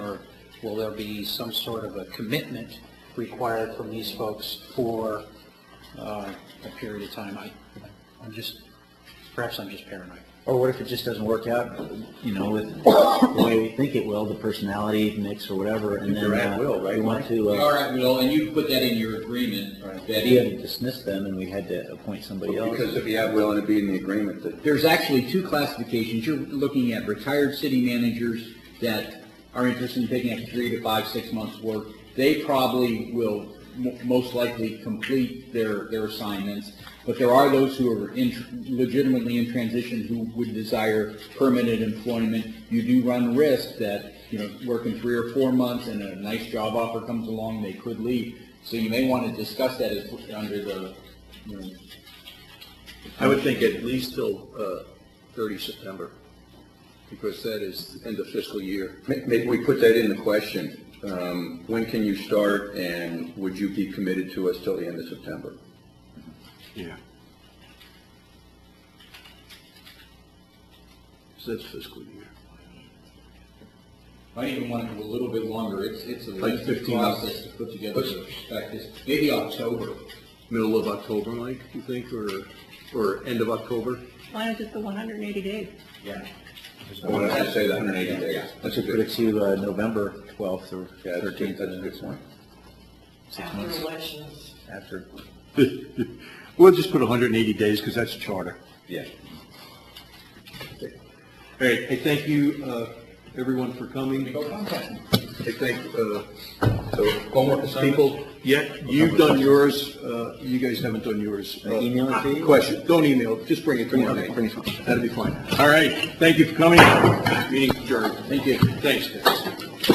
will there be some sort of a commitment required from these folks for uh, a period of time? I, I'm just, perhaps I'm just paranoid. Or what if it just doesn't work out, you know, with the way we think it will, the personality mix or whatever, and then. They're at uh, will, right, We want Mike? to, All uh, right, Will, and you put that in your agreement, Right. that we had if, to dismiss them and we had to appoint somebody else. Because if you have will and it be in the agreement that there's actually two classifications, you're looking at retired city managers that are interested in picking up three to five, six months' work, they probably will mo- most likely complete their, their assignments, but there are those who are in, legitimately in transition who would desire permanent employment. You do run risk that, you know, working three or four months and a nice job offer comes along, they could leave. So you may want to discuss that as, under the, you know, I would think at least till uh, 30 September, because that is the end of fiscal year. Maybe we put that in the question. Um, When can you start, and would you be committed to us till the end of September? Yeah. So that's fiscal year. Might even want to go a little bit longer, it's, it's a Like lengthy 15 process to put together the perspectives, maybe October. Middle of October, Mike, you think, or, or end of October? Why not just the 180 days? Yeah. I wanted to say the 180 days. That's a Put good, it to uh, November 12th or yeah, that's a 13th. good- that's a good point. After elections. After, We'll just put 180 days because that's charter. Yeah. All right, hey, thank you, uh, everyone for coming. I think, uh, so homework assignments? People, yeah, you've done yours, uh, you guys haven't done yours. I email it to you? Question, don't email, it, just bring it to me. Okay. That'll be fine. All right, thank you for coming. Meeting adjourned. Thank you. Thanks, guys.